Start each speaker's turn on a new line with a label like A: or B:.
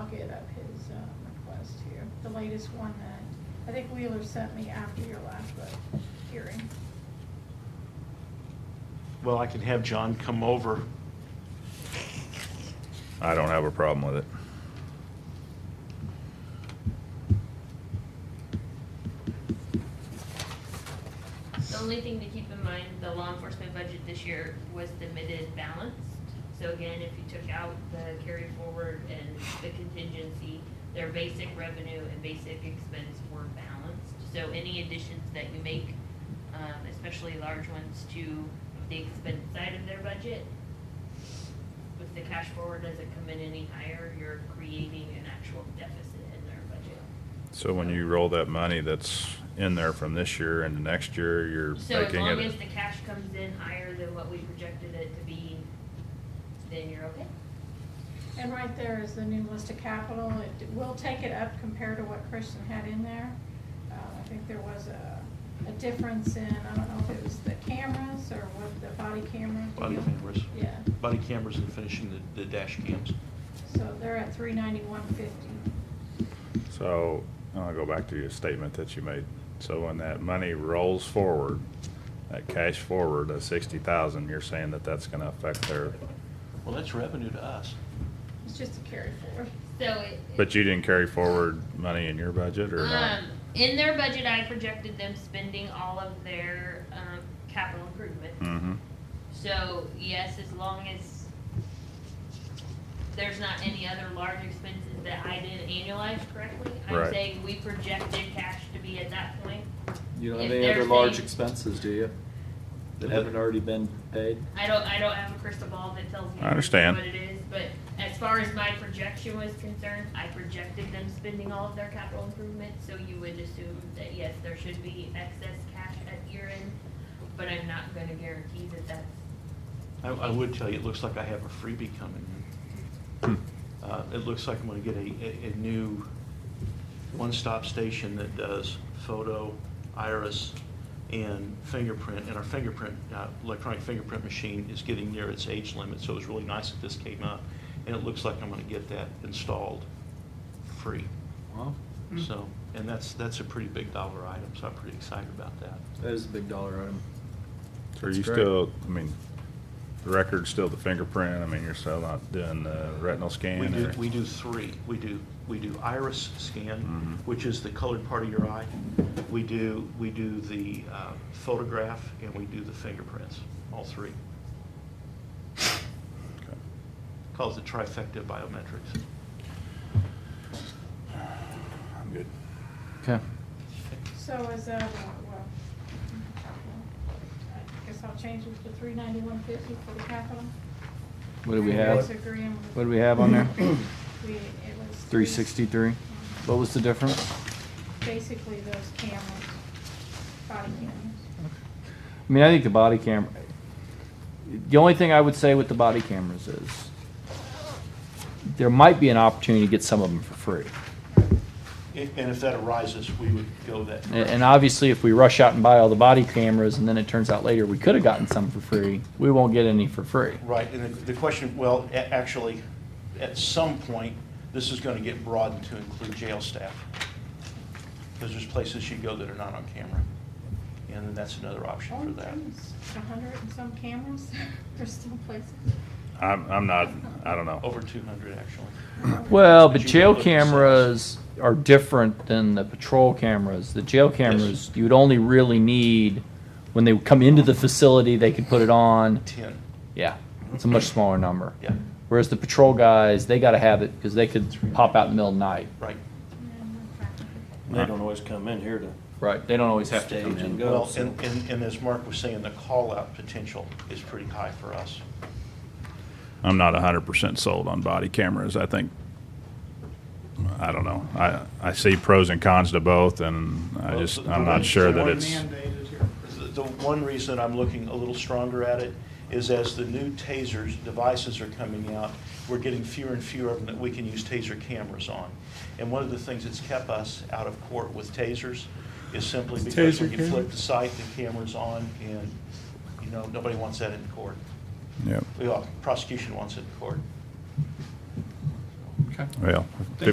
A: uh, the latest one that, I think Wheeler sent me after your last vote hearing.
B: Well, I can have John come over.
C: I don't have a problem with it.
D: The only thing to keep in mind, the law enforcement budget this year was the admitted balanced. So again, if you took out the carry forward and the contingency, their basic revenue and basic expense were balanced. So any additions that you make, um, especially large ones to the expense side of their budget, if the cash forward doesn't come in any higher, you're creating an actual deficit in their budget.
C: So when you roll that money that's in there from this year into next year, you're
D: So as
C: making
D: long as
C: it,
D: the cash comes in higher than what we projected it to be, then you're okay.
A: And right there is the new list of capital. It will take it up compared to what Christian had in there. Uh, I think there was a, a difference in, I don't know if it was the cameras or what the body camera.
B: Body
A: deal.
B: cameras.
A: Yeah,
B: Body cameras and finishing the, the dash cams.
A: so they're at three ninety-one fifty.
C: so, I'll go back to your statement that you made. So when that money rolls forward, that cash forward, that sixty thousand, you're saying that that's gonna affect their,
B: Well, that's revenue to us.
A: It's just a carry forward.
D: So it.
C: but you didn't carry forward money in your budget or not?
D: Um, in their budget, I projected them spending all of their, um, capital improvement.
C: Mm-hmm,
D: So, yes, as long as there's not any other large expenses that I didn't annualize correctly, I'm
C: Right.
D: saying we projected cash to be at that point.
E: You don't
D: If
E: have any other
D: there's
E: large
D: any-
E: expenses, do you? That
B: Yeah.
E: haven't already been paid?
D: I don't, I don't have a crystal ball that tells me
C: I understand.
D: what it is, but as far as my projection was concerned, I projected them spending all of their capital improvements, so you would assume that, yes, there should be excess cash at year end, but I'm not gonna guarantee that that's,
B: I, I would tell you, it looks like I have a freebie coming in. Uh, it looks like I'm gonna get a, a, a new one-stop station that does photo, iris, and fingerprint, and our fingerprint, uh, electronic fingerprint machine is getting near its age limit, so it was really nice that this came up. And it looks like I'm gonna get that installed free.
E: Well,
B: So, and that's, that's a pretty big dollar item, so I'm pretty excited about that.
E: that is a big dollar item.
C: so are
E: That's
C: you
E: great.
C: still, I mean, the record's still the fingerprint, I mean, you're still not doing the retinal scan
B: We
C: or?
B: do, we do three. We do, we do iris scan,
C: Mhm.
B: which is the colored part of your eye. We do, we do the uh, photograph, and we do the fingerprints, all three.
C: Okay.
B: Calls it trifecta biometrics.
C: I'm good.
E: Okay.
A: So is that, well, I guess I'll change it to three ninety-one fifty for the capital.
E: What do we
A: Are you
E: have?
A: guys agreeing with-
E: What do we have on there?
A: We, it was.
E: Three sixty-three? What was the difference?
A: Basically those cameras, body cameras.
E: I mean, I think the body camera, the only thing I would say with the body cameras is there might be an opportunity to get some of them for free.
B: And and if that arises, we would go that.
E: And, and obviously, if we rush out and buy all the body cameras and then it turns out later we could have gotten some for free, we won't get any for free.
B: Right, and the- the question, well, a- actually, at some point, this is going to get broadened to include jail staff. Because there's places you go that are not on camera. And then that's another option for
A: Oh,
B: that.
A: geez, A hundred and some cameras, there's still places.
C: I'm, I'm not, I don't know.
B: Over 200, actually.
E: Well,
B: But
E: but
B: you
E: jail
B: can look at
E: cameras are different than the patrol cameras. The jail cameras, you would only really need, when they come into the facility, they could put it on.
B: 10,
E: Yeah, it's a much smaller number.
B: yeah,
E: Whereas the patrol guys, they gotta have it because they could pop out in the middle of the night.
B: right.
F: They don't always come in here to.
E: Right. They don't always have to come
F: Stage and
E: in.
F: go.
B: Well, and, and and as Mark was saying, the call-out potential is pretty high for us.
C: I'm not hundred percent sold on body cameras. I think, I don't know. I, I see pros and cons to both and I
B: Well,
C: just,
B: the-
C: I'm
B: the one-
C: not sure
B: the
C: that
B: one
C: it's,
B: The the one reason I'm looking a little stronger at it is as the new tasers, devices are coming out, we're getting fewer and fewer of them that we can use taser cameras on. And one of the things that's kept us out of court with tasers is simply because when you flip the sight, the camera's on, and, you know, nobody wants that in court.
C: yeah,
B: Well, prosecution wants it in court.
E: Okay.
C: well,